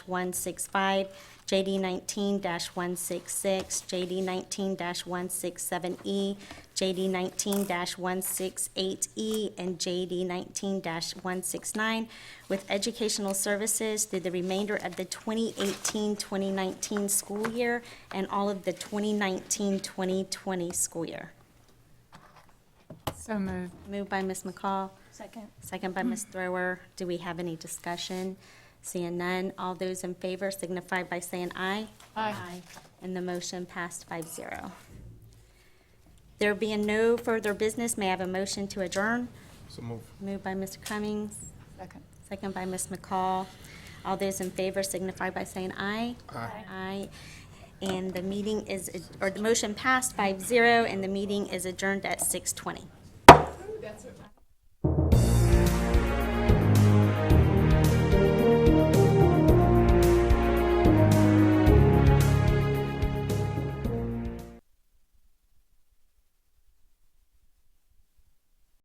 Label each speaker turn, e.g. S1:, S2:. S1: 165, JD 19-166, JD 19-167E, JD 19-168E, E, and JD 19-169 with educational services through the remainder of the 2018-2019 school year and all of the 2019-2020 school year.
S2: So moved.
S1: Moved by Ms. McCall,
S3: Second.
S1: Second by Ms. Thrower. Do we have any discussion? Seeing none, all those in favor signify by saying aye.
S2: Aye.
S1: And the motion passed 5-0. There being no further business, may I have a motion to adjourn?
S4: So move.
S1: Moved by Mr. Cummings,
S2: Second.
S1: second by Ms. McCall. All those in favor signify by saying aye.
S4: Aye.
S1: Aye. And the meeting is, or the motion passed 5-0, and the meeting is adjourned at six twenty.